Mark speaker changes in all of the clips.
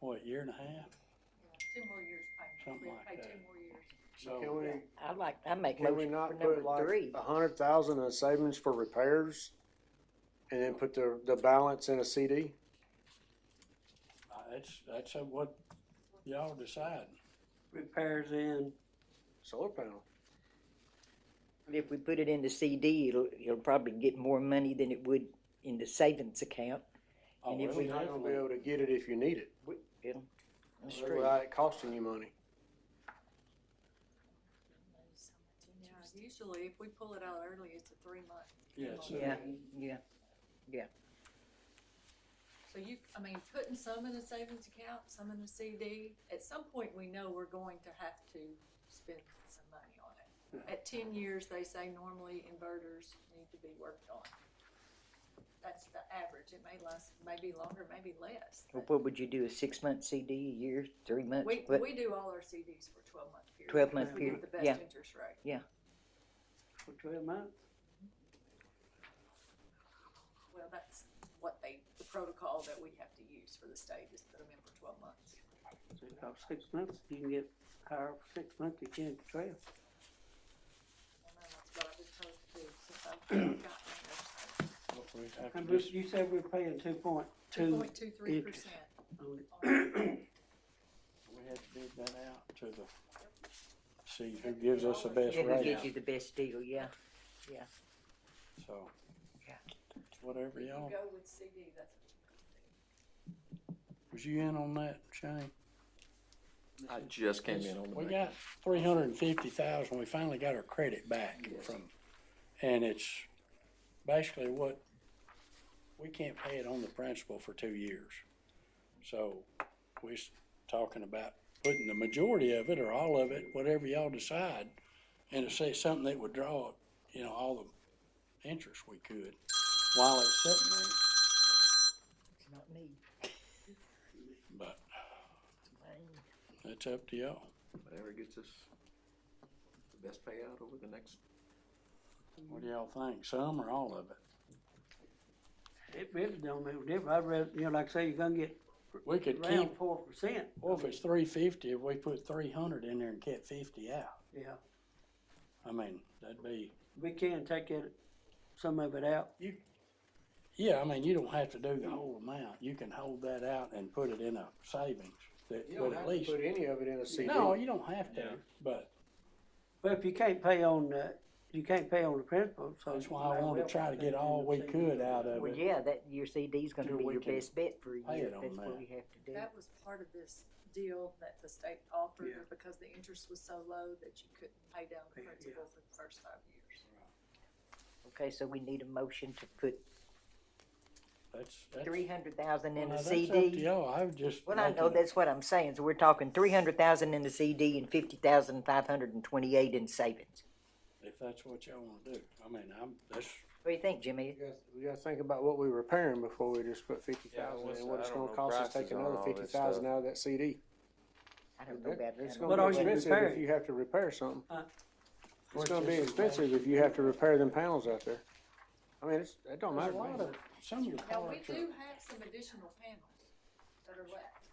Speaker 1: what, year and a half?
Speaker 2: Two more years payment.
Speaker 1: Something
Speaker 2: We
Speaker 1: like
Speaker 2: pay
Speaker 1: that.
Speaker 2: two more years.
Speaker 1: So,
Speaker 3: Can we,
Speaker 4: I'd like, I make
Speaker 3: can we
Speaker 4: motion for
Speaker 3: not put
Speaker 4: number
Speaker 3: like
Speaker 4: three.
Speaker 1: uh,
Speaker 3: a hundred thousand in savings for repairs? And then put the, the balance in a CD?
Speaker 1: uh, that's, that's uh, what y'all decide.
Speaker 5: repairs in,
Speaker 3: Solar panel.
Speaker 4: If we put it in the CD, it'll, it'll probably get more money than it would in the savings account.
Speaker 1: Oh,
Speaker 4: And if
Speaker 1: well,
Speaker 4: we-
Speaker 3: You're not gonna be able to get it if you need it,
Speaker 4: It'll- That's true.
Speaker 3: without it costing you money.
Speaker 2: Yeah, usually if we pull it out early, it's a three month.
Speaker 1: Yeah, it's, uh,
Speaker 4: Yeah, yeah.
Speaker 2: So you, I mean, putting some in a savings account, some in a CD, at some point, we know we're going to have to spend some money on it. At ten years, they say normally inverters need to be worked on. That's the average, it may last, maybe longer, maybe less.
Speaker 4: Well, What would you do, a six-month CD, a year, three months?
Speaker 2: We,
Speaker 4: What-
Speaker 2: we do all our CDs for twelve month period.
Speaker 4: 12 month
Speaker 2: because we get
Speaker 4: period,
Speaker 2: The
Speaker 4: yeah.
Speaker 2: best interest rate.
Speaker 5: for twelve months.
Speaker 2: Well, that's what they, the protocol that we have to use for the state is put them in for twelve months.
Speaker 5: So about six months, you can get higher for six months, you can for twelve.
Speaker 2: And then that's what I've been told to do since I've gotten there, so.
Speaker 1: what we have to
Speaker 5: And
Speaker 1: dis-
Speaker 5: you said we're paying two point
Speaker 2: Two
Speaker 5: two
Speaker 2: point two three percent.
Speaker 5: on it.
Speaker 1: we have to bid that out to the, see who gives us the best
Speaker 4: Yeah, who
Speaker 1: rate,
Speaker 4: gives you the best deal, yeah.
Speaker 1: so.
Speaker 4: Yeah.
Speaker 1: Whatever
Speaker 2: You
Speaker 1: y'all,
Speaker 2: go with CD, that's what you
Speaker 1: was you in on that, Shane?
Speaker 6: I just came in on the.
Speaker 1: We
Speaker 6: bank.
Speaker 1: got three hundred and fifty thousand, we finally got our credit back from, and it's basically what, we can't pay it on the principal for two years. So, we're s- talking about putting the majority of it, or all of it, whatever y'all decide, and to say something that would draw, you know, all the interest we could, while it's sitting there,
Speaker 4: It's not me.
Speaker 1: but it's up to y'all.
Speaker 6: Whatever gets us the best payout over the next.
Speaker 1: What do y'all think, some or all of it?
Speaker 5: It really don't make a difference. I'd rather, you know, like I say, you're gonna get
Speaker 1: We could keep Oh,
Speaker 5: around four percent.
Speaker 1: Well, if it's three fifty, if we put three hundred in there and kept fifty out,
Speaker 5: Yeah,
Speaker 1: I mean, that'd be,
Speaker 5: we can take it, some of it out.
Speaker 1: yeah, I mean, you don't have to do the whole amount. You can hold that out and put it in a savings that
Speaker 3: You
Speaker 1: would
Speaker 3: don't
Speaker 1: at
Speaker 3: have to
Speaker 1: least.
Speaker 3: put any of it in a CD.
Speaker 1: No, you don't have to,
Speaker 6: Yeah.
Speaker 1: but
Speaker 5: But if you can't pay on, uh, you can't pay on the principal, so.
Speaker 1: that's
Speaker 5: you
Speaker 1: why I
Speaker 5: might
Speaker 1: wanna
Speaker 5: well
Speaker 1: try to
Speaker 5: put it
Speaker 1: get
Speaker 5: in
Speaker 1: all
Speaker 5: the
Speaker 1: we
Speaker 5: CD.
Speaker 1: could out of
Speaker 4: Well,
Speaker 1: it.
Speaker 4: yeah, that, your CD's gonna
Speaker 1: Till
Speaker 4: be
Speaker 1: we
Speaker 4: your
Speaker 1: can
Speaker 4: best bet for a
Speaker 1: pay
Speaker 4: year,
Speaker 1: it on
Speaker 4: that's
Speaker 1: that.
Speaker 4: what we have to do.
Speaker 2: That was part of this deal that the state offered,
Speaker 5: Yeah.
Speaker 2: because the interest was so low that you couldn't pay down the
Speaker 5: Yeah, yeah.
Speaker 2: principal for the first five years.
Speaker 4: Okay, so we need a motion to put
Speaker 1: That's, that's.
Speaker 4: three hundred thousand in
Speaker 1: well,
Speaker 4: a
Speaker 1: that's up to
Speaker 4: CD.
Speaker 1: y'all. I would just.
Speaker 4: Well, I
Speaker 1: make
Speaker 4: know,
Speaker 1: it-
Speaker 4: that's what I'm saying, so we're talking three hundred thousand in the CD and fifty thousand five hundred and twenty-eight in savings.
Speaker 1: If that's what y'all wanna do. I mean, I'm, that's,
Speaker 4: What do you think, Jimmy?
Speaker 3: We gotta- We gotta think about what we're repairing before we just put fifty
Speaker 6: Yeah, I was
Speaker 3: thousand
Speaker 6: gonna
Speaker 3: in,
Speaker 6: say,
Speaker 3: what
Speaker 6: I
Speaker 3: it's
Speaker 6: don't
Speaker 3: gonna
Speaker 6: know
Speaker 3: cost us
Speaker 6: prices
Speaker 3: taking
Speaker 6: on
Speaker 3: another
Speaker 6: all this
Speaker 3: fifty thousand
Speaker 6: stuff.
Speaker 3: out of that CD.
Speaker 4: I don't know about
Speaker 3: It's
Speaker 4: that.
Speaker 5: But
Speaker 3: gonna
Speaker 5: are
Speaker 3: be
Speaker 5: you
Speaker 3: expensive if
Speaker 5: repairing?
Speaker 3: you have to repair something.
Speaker 5: Huh?
Speaker 3: It's gonna be
Speaker 1: Which is-
Speaker 3: expensive if you have to repair them panels out there. I mean, it's, it don't
Speaker 1: there's a
Speaker 3: matter. to
Speaker 1: lot
Speaker 3: me.
Speaker 1: of, some of the
Speaker 2: Now, we
Speaker 1: parts are.
Speaker 2: do have some additional panels that are left.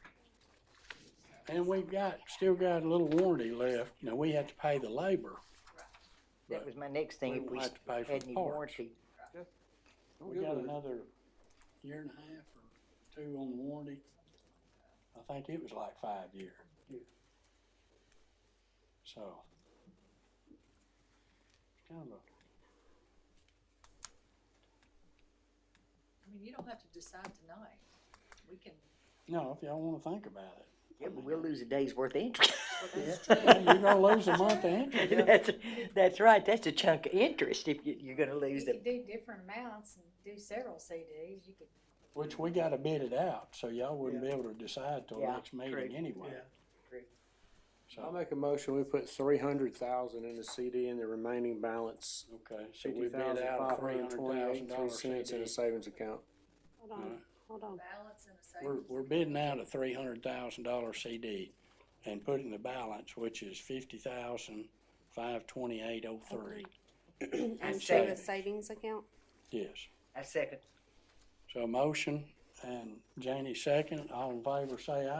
Speaker 1: And we've got, still got a little warranty left. Now, we have to pay the labor.
Speaker 4: That was my next thing,
Speaker 1: We
Speaker 4: if we
Speaker 1: won't have to pay for
Speaker 4: had
Speaker 1: the
Speaker 4: any
Speaker 1: parts.
Speaker 4: warranty.
Speaker 3: I'm
Speaker 1: We
Speaker 3: good
Speaker 1: got
Speaker 3: with it.
Speaker 1: another year and a half or two on the warranty. I think it was like five year. So. it's Kind of, a-
Speaker 2: I mean, you don't have to decide tonight, we can,
Speaker 1: no, if y'all wanna think about it.
Speaker 4: Yeah, but we'll lose a day's worth of interest.
Speaker 2: well, that's true.
Speaker 1: You're gonna lose a month of interest.
Speaker 4: That's, that's right, that's a chunk of interest if you, you're gonna
Speaker 7: You
Speaker 4: lose them.
Speaker 7: could do different amounts and do several CDs, you could,
Speaker 1: Which we gotta bid it out, so y'all wouldn't be able to decide till
Speaker 4: Yeah,
Speaker 1: next meeting
Speaker 4: true.
Speaker 1: anyway.
Speaker 5: Yeah.
Speaker 4: True.
Speaker 3: I'll
Speaker 1: So,
Speaker 3: make a motion, we put three hundred thousand in the CD and the remaining balance,
Speaker 1: okay, so we
Speaker 3: fifty
Speaker 1: bid out
Speaker 3: thousand
Speaker 1: a
Speaker 3: five
Speaker 1: three
Speaker 3: hundred
Speaker 1: hundred
Speaker 3: twenty-eight,
Speaker 1: thousand
Speaker 3: three
Speaker 1: dollar
Speaker 3: cents in a
Speaker 1: CD.
Speaker 3: savings account.
Speaker 8: Hold on,
Speaker 1: Alright.
Speaker 8: hold on.
Speaker 2: Balance and a
Speaker 1: We're,
Speaker 2: savings.
Speaker 1: we're bidding out a three hundred thousand dollar CD and putting the balance, which is fifty thousand, five twenty-eight oh three,
Speaker 8: And
Speaker 1: say-
Speaker 8: save a savings account?
Speaker 1: yes.
Speaker 4: I second.
Speaker 1: So a motion, and Janie second, all in favor say aye.